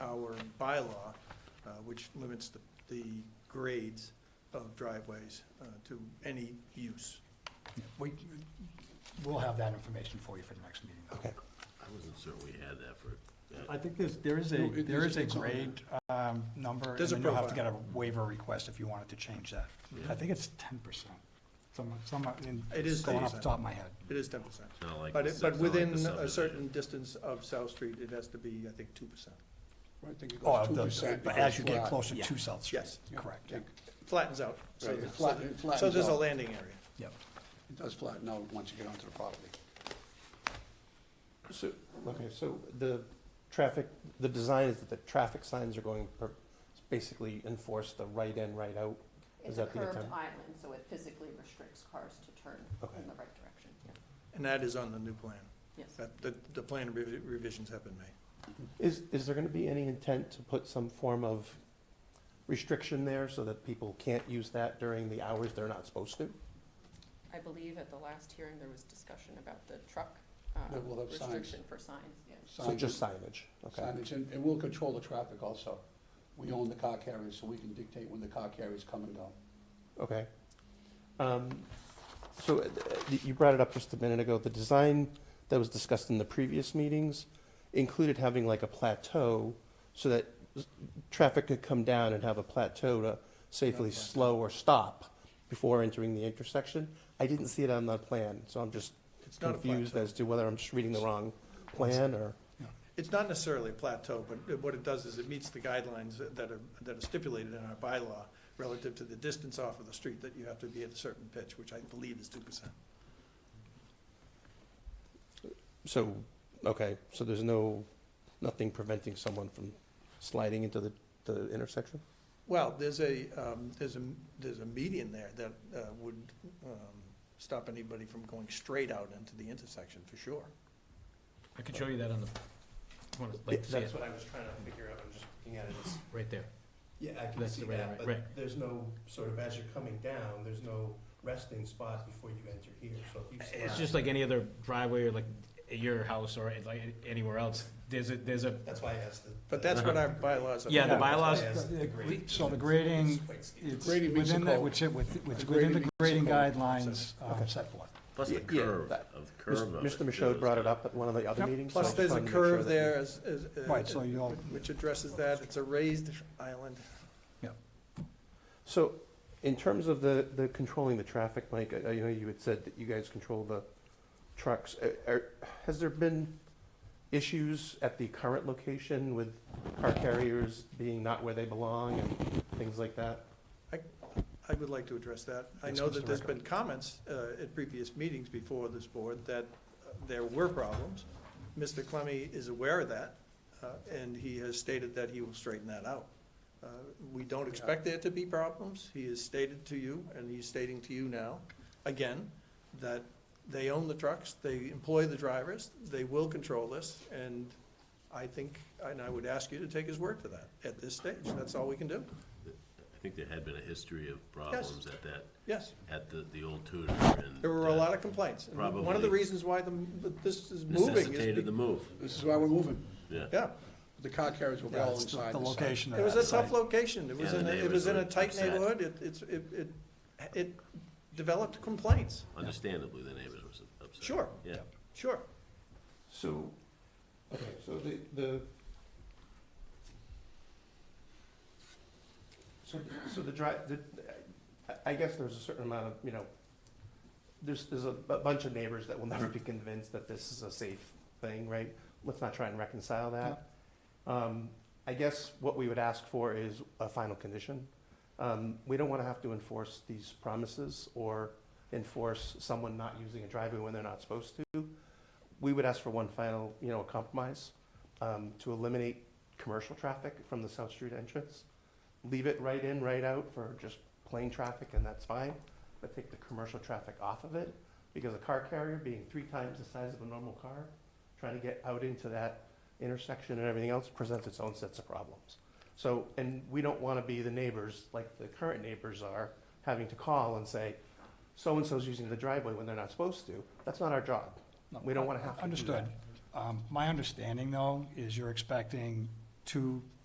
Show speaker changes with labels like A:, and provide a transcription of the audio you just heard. A: bylaw, uh, which limits the, the grades of driveways uh, to any use.
B: We, we'll have that information for you for the next meeting.
C: Okay.
D: I wasn't certain we had that for,
B: I think there's, there is a,
E: No, it
B: there
E: is-
B: is a
E: it's on there.
B: grade, um, number, and
A: There's a
B: then you'll have to get a
A: profile.
B: waiver request if you wanted to change that. I think it's ten percent, some, some, in-
A: It is
B: going off the
A: 10%.
B: top of my head.
A: It is ten percent.
D: it's not like.
A: But
D: the
A: it,
D: sub-
A: but
D: it's not like the
A: within a
D: subdivision.
A: certain distance of South Street, it has to be, I think, two percent.
E: I think it
B: Oh,
E: goes two percent.
B: but as you get closer to South Street.
A: Yes.
B: Correct,
A: Flattens out. so
E: Right, it
A: there's-
E: flatten- it
A: So
E: flattens
A: there's a
E: out.
A: landing area.
B: yep.
E: It does flatten out once you get onto the property.
C: So, okay, so the traffic, the design is that the traffic signs are going, per- basically enforce the right in, right out? Is
F: It's a
C: that the
F: curved
C: attempt?
F: island, so it physically restricts cars to turn
C: Okay.
F: in the right direction, yeah,
A: And that is on the new plan.
F: yes.
A: That, the, the plan revi- revisions have been made.
C: Is, is there gonna be any intent to put some form of restriction there so that people can't use that during the hours they're not supposed to?
F: I believe at the last hearing, there was discussion about the truck uh,
E: That will have signs.
F: restriction for signs, yes.
C: So
E: Signage-
C: just signage, okay?
E: Signage, and, and we'll control the traffic also. We own the car carriers, so we can dictate when the car carriers come and go.
C: Okay. Um, So uh, y- you brought it up just a minute ago, the design that was discussed in the previous meetings included having like a plateau so that s- traffic could come down and have a plateau to safely
A: Not plateau.
C: slow or stop before entering the intersection. I didn't see it on the plan, so I'm just
A: It's not a
C: confused
A: plateau.
C: as to whether I'm just reading the wrong plan or,
A: It's not necessarily a plateau, but what it does is it meets the guidelines that are, that are stipulated in our bylaw relative to the distance off of the street that you have to be at a certain pitch, which I believe is two percent.
C: so, okay, so there's no, nothing preventing someone from sliding into the, the intersection?
A: Well, there's a, um, there's a, there's a median there that, uh, would, um, stop anybody from going straight out into the intersection for sure.
G: I can show you that on the, want to, like, to see it,
C: what I was trying to figure out, I'm just looking at it as.
G: right there.
C: Yeah, I can
G: That's
C: see
G: the right-
C: that, but
G: right.
C: there's no, sort of as you're coming down, there's no resting spot before you enter here, so if you.
G: It's
C: slide-
G: just like any other driveway, or like at your house or at, like anywhere else, there's a, there's a,
C: That's why I asked the.
A: But that's what our bylaws are.
G: yeah,
C: Yeah,
G: the
C: that's
G: bylaws.
C: why I asked the
G: we-
B: So the grading,
C: Quite steep.
B: it's
E: Grading meets the
B: within that,
E: code.
B: which, it- with- which,
E: The
B: within
E: grading
B: the
E: meets the
B: grading
E: code.
B: guidelines uh,
C: Okay.
B: set forth.
D: Plus the
C: Yeah, yeah,
D: curve,
C: that-
D: of the curve of it.
C: Mr. Michaud brought it up at one of the other
B: Yep.
C: meetings. so I
A: Plus,
C: just
A: there's a
C: wanted to make sure
A: curve
C: that we-
A: there as, as. uh,
B: Right, so you'll-
A: Which addresses that, it's a raised island.
C: So, in terms of the, the controlling the traffic, Mike, I, I know you had said that you guys control the trucks. Uh, Are, has there been issues at the current location with car carriers being not where they belong and things like that?
A: I would like to address that. I
B: Yes,
A: know that
B: Mr.
A: there's
B: Ricker.
A: been comments uh, at previous meetings before this board that uh, there were problems. Mr. Clemmie is aware of that, uh, and he has stated that he will straighten that out. Uh, We don't expect there to be problems. He has stated to you, and he's stating to you now, again, that they own the trucks, they employ the drivers, they will control this, and I think, and I would ask you to take his word for that at this stage. That's all we can do.
D: I think there had been a history of problems at that,
A: Yes.
D: at the, the old Tudor and.
A: There were a
D: that
A: lot of complaints. And One of the
D: Probably.
A: reasons why the, that this is moving is.
D: Necessitated the
A: be-
D: move,
E: This is why we're moving.
D: yeah.
A: Yeah,
E: The car carriers will be
B: Yeah,
E: all
B: it's the
E: inside
B: the
E: the site.
B: location of
A: it was a
B: that
A: tough
B: site.
A: location. It
D: Yeah,
A: was
D: the
A: in, a- it
D: neighbors
A: was in
D: were
A: a tight
D: upset.
A: neighborhood. It, it's, it, it, it developed complaints.
D: Understandably, the neighbors were upset.
A: Sure.
D: Yeah.
A: Sure.
C: So, okay, so the, the. So, so the dri, the, I- I guess there's a certain amount of, you know, there's, there's a bu- bunch of neighbors that will never be convinced that this is a safe thing, right? Let's not try and reconcile that. Um, I guess what we would ask for is a final condition. Um, we don't wanna have to enforce these promises or enforce someone not using a driveway when they're not supposed to we would ask for one final, you know, compromise, um, to eliminate commercial traffic from the South Street entrance. Leave it right in, right out for just plain traffic, and that's fine, but take the commercial traffic off of it, because a car carrier being three times the size of a normal car, trying to get out into that intersection and everything else presents its own sets of problems. So, and we don't wanna be the neighbors, like the current neighbors are, having to call and say, so-and-so's using the driveway when they're not supposed to, that's not our job.
B: No,
C: We don't wanna have to do that.
B: Understood. Um, My understanding, though, is you're expecting two